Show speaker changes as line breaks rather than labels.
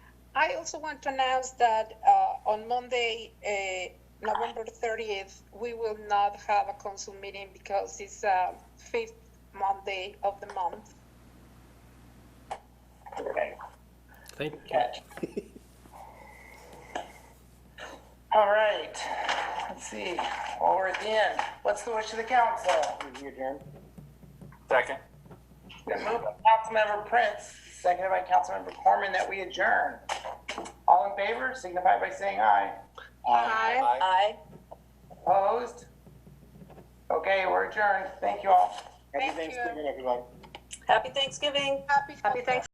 I also want to announce that uh, on Monday, uh, November 30th, we will not have a council meeting because it's uh, fifth Monday of the month.
Okay.
Thank you.
Catch. All right, let's see, well, we're at the end. What's the wish of the council?
Second.
Been moved by Councilmember Prince, seconded by Councilmember Corman, that we adjourn. All in favor, signify by saying aye.
Aye.
Aye.
Opposed? Okay, we're adjourned. Thank you all.
Thank you.
Happy Thanksgiving.
Happy Thanksgiving.